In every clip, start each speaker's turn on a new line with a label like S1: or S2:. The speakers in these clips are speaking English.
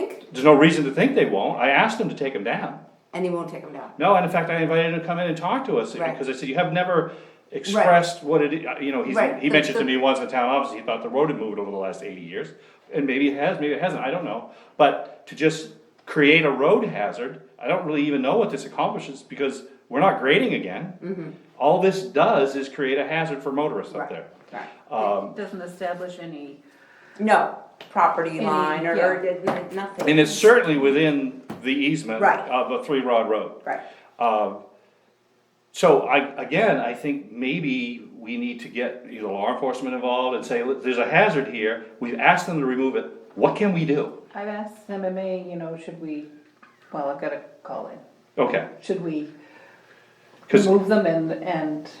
S1: there's no reason to think they won't, I asked them to take them down.
S2: and he won't take them down.
S1: No, and in fact, I invited him to come in and talk to us,
S2: Right.
S1: because I said, you have never expressed what it, i- you know, he's,
S2: Right,
S1: he
S2: the-
S1: mentioned to
S2: the-
S1: me once in town office, he thought the road had moved over the last eighty years. And maybe it has, maybe it hasn't, I don't know, but to just create a road hazard, I don't really even know what this accomplishes, because we're not grading again. All this does is create a hazard for motorists up
S2: Mm-hmm. Right,
S1: there.
S2: Right.
S1: Um,
S3: Doesn't establish any,
S2: No, property line or, or
S3: yeah.
S2: did- nothing.
S1: and it's certainly within the easement
S2: Right.
S1: of a three rod road.
S2: Right,
S1: Um, so I, again, I think maybe we need to get either law enforcement involved and say, "Look, there's a hazard here, we've asked them to remove it, what can we do?
S3: I've asked MMA, you know, should we, well, I've gotta call in,
S1: Okay,
S3: should we
S1: cause,
S3: remove them and, and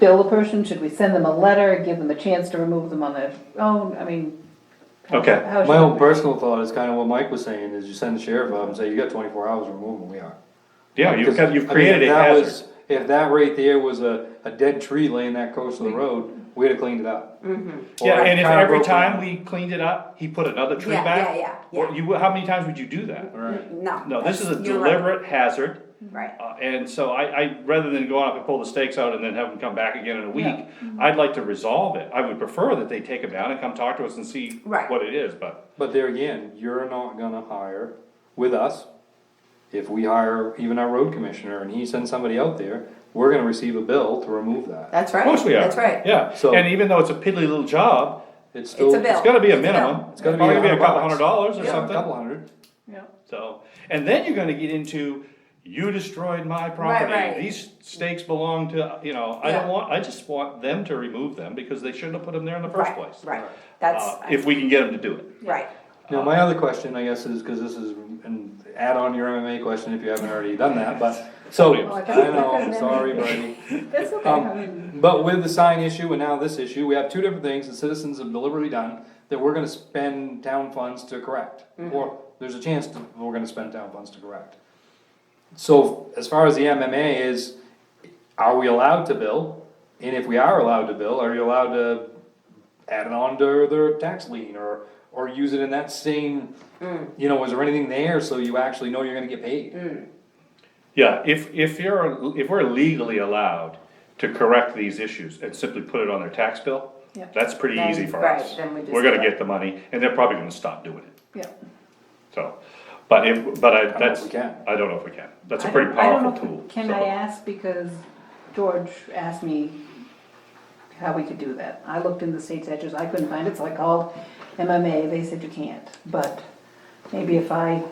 S3: bill the person, should we send them a letter, give them a chance to remove them on their own, I mean. how-
S1: Okay.
S3: how should
S4: My own
S3: we-
S4: personal thought is kinda what Mike was saying, is you send the sheriff up and say, you got twenty-four hours to remove them, we are.
S1: yeah, you've, got- you've
S4: I mean, if
S1: created a
S4: that
S1: hazard.
S4: was- If that right there was a, a dead tree laying that close to the road, we'd have cleaned it up.
S2: Mm-hmm.
S4: Or
S1: Yeah, and if
S4: kinda
S1: every
S4: broken-
S1: time we cleaned it up, he put another tree
S2: Yeah,
S1: back?
S2: yeah, yeah,
S1: Or
S2: yeah.
S1: you, how many times would you do that?
S4: Right.
S2: no.
S1: No, this is a
S2: that's- you're
S1: deliberate hazard,
S2: Right,
S1: uh, and so I, I, rather than go out and pull the stakes out and then have them come back again in a week,
S2: Mm-hmm.
S1: I'd like to resolve it, I would prefer that they take them down and come talk to us and see
S2: Right.
S1: what it is, but.
S4: But there again, you're not gonna hire with us. If we hire even our road commissioner and he sends somebody out there, we're gonna receive a bill to remove that.
S2: that's right.
S1: Of course we are.
S2: That's right.
S1: Yeah,
S4: So-
S1: and even though it's a piddly little job,
S2: It's
S4: It's still,
S2: a bill.
S1: it's gotta be a
S2: It's
S1: minimum.
S4: It's gotta be
S1: Probably
S4: a
S1: a couple hundred
S4: hundred
S1: dollars or
S4: yeah, a
S1: something,
S4: couple hundred.
S3: Yeah.
S1: so, and then you're gonna get into, you destroyed my
S2: right.
S1: property, these stakes belong to, you know, I don't
S2: Yeah.
S1: want, I just want them to remove them, because they shouldn't have put them there in the first
S2: Right,
S1: place.
S2: Right,
S1: Uh,
S2: that's,
S1: if we can get them to do it,
S2: right,
S4: Now, my other question, I guess, is, cause this is, and add on your MMA question if you haven't already done that, but, so,
S1: Oh,
S3: I
S4: I
S3: thought you
S4: know,
S3: were
S4: I'm
S3: gonna-
S4: sorry, buddy.
S3: That's okay, I mean,
S4: Um, but with the sign issue and now this issue, we have two different things that citizens have deliberately done that we're gonna spend town funds to correct. Or there's a chance that we're gonna spend town funds to correct. So as far as the MMA is, are we allowed to bill? And if we are allowed to bill, are you allowed to add it on to their tax lien or, or use it in that same, you know, is there anything there so you actually know you're gonna get paid?
S1: yeah, if, if you're, if we're legally allowed to correct these issues and simply put it on their tax bill,
S3: Yeah.
S1: that's pretty
S2: Then-
S1: easy for
S2: right,
S1: us.
S2: then we just
S1: We're gonna
S2: do it.
S1: get the money, and they're probably gonna stop doing it.
S3: yeah.
S1: So, but if, but I,
S4: if
S1: that's,
S4: we can.
S1: I don't know if we can, that's a
S3: I
S1: pretty
S3: don't- I don't
S1: powerful
S3: know if-
S1: tool.
S3: Can
S1: so.
S3: I ask, because George asked me how we could do that. I looked in the state statutes, I couldn't find it, so I called MMA, they said you can't, but maybe if I,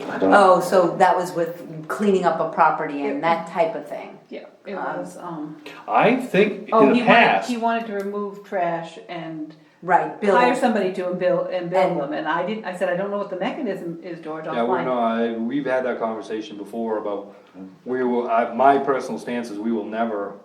S2: oh, so that was with cleaning up a property and that type of thing.
S3: yeah, it was, um.
S1: I think
S3: Oh,
S1: in
S3: he
S1: the
S3: wanted,
S1: past,
S3: he wanted to remove trash and
S2: Right, bill,
S3: hire somebody to and bill, and bill
S2: And-
S3: them, and I didn't, I said, I don't know what the mechanism is, George,
S4: Yeah,
S3: I'll
S4: we're
S3: find.
S4: not, we've had that conversation before about, we will, I, my personal stance is we will never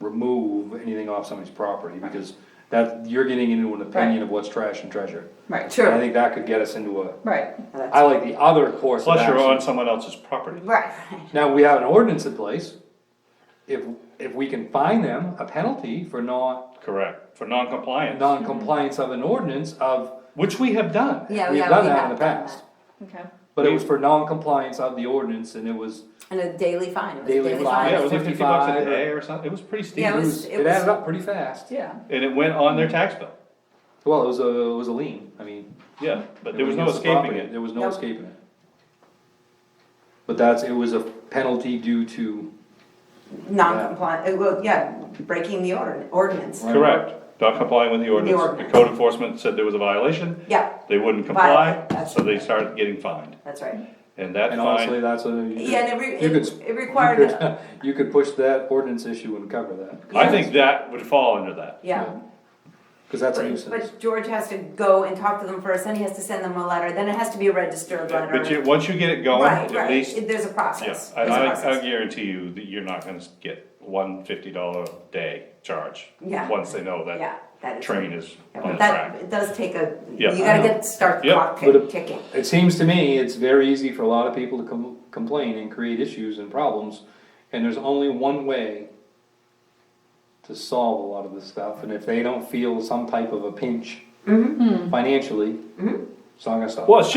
S4: remove anything off somebody's property, because that, you're getting into an opinion of what's trash and treasure.
S3: Right,
S4: And I
S2: sure,
S4: think that could get us into a,
S3: right,
S4: I like the other course of
S1: plus you're on
S4: action.
S1: someone else's property.
S2: right.
S4: Now, we have an ordinance in place, if, if we can fine them a penalty for not,
S1: Correct, for non-compliance,
S4: non-compliance of an ordinance of,
S1: which we have done.
S2: Yeah,
S4: we've
S2: yeah,
S4: done
S2: we
S4: that
S2: have
S4: in the
S2: done
S4: past.
S2: that.
S3: okay.
S4: But it was for non-compliance of the ordinance, and it was,
S2: And a daily fine, it was a
S4: Daily
S2: daily
S4: fine.
S2: fine.
S1: Yeah, it was like fifty bucks a
S4: 55.
S1: day or something, it was pretty steep,
S2: Yeah,
S4: it
S1: and
S2: was-
S4: was,
S2: it
S4: it added up pretty fast.
S3: Yeah,
S1: it went on their tax bill,
S4: Well, it was a, it was a lien, I mean.
S1: yeah, but
S4: it
S1: there was no
S4: against the
S1: escaping
S4: property,
S1: it.
S4: There was no
S2: No.
S4: escaping it. But that's, it was a penalty due to,
S2: Non-compliant, uh, well, yeah, breaking the ordin- ordinance,
S4: Right.
S1: Correct, not complying with the ordinance, the
S2: ordinance.
S1: code enforcement said there was a violation,
S2: yeah,
S1: they wouldn't comply,
S2: Violate, that's-
S1: so they started getting fined,
S2: that's right.
S1: and that
S4: and honestly,
S1: fine,
S4: that's a. you
S2: Yeah, and it
S4: could-
S2: re-
S4: you
S2: it-
S4: could-
S2: it required
S4: you could- You could push that ordinance issue and cover that,
S1: I think that would fall under that.
S2: Yeah,
S4: cause that's a
S2: but
S4: nuisance.
S2: but George has to go and talk to them first, then he has to send them a letter, then it has to be a registered letter.
S1: But you, once you get it going,
S2: Right,
S1: at least,
S2: right, there's a
S1: yeah,
S2: process.
S1: and
S2: There's a
S1: I, I
S2: process.
S1: guarantee you that you're not gonna get one fifty dollar day charge.
S2: Yeah.
S1: Once they know
S2: Yeah,
S1: that
S2: that is.
S1: train is
S2: Yeah,
S1: on the
S2: But
S1: track.
S2: that, it does take a,
S1: Yeah,
S2: you
S1: I
S2: gotta
S4: know.
S2: get, start the
S1: Yep.
S2: clock
S4: But
S2: tick-
S4: it-
S2: ticking.
S4: It seems to me, it's very easy for a lot of people to com- complain and create issues and problems, and there's only one way to solve a lot of this stuff, and if they don't feel some type of a pinch financially, it's not gonna stop.
S1: Well, it's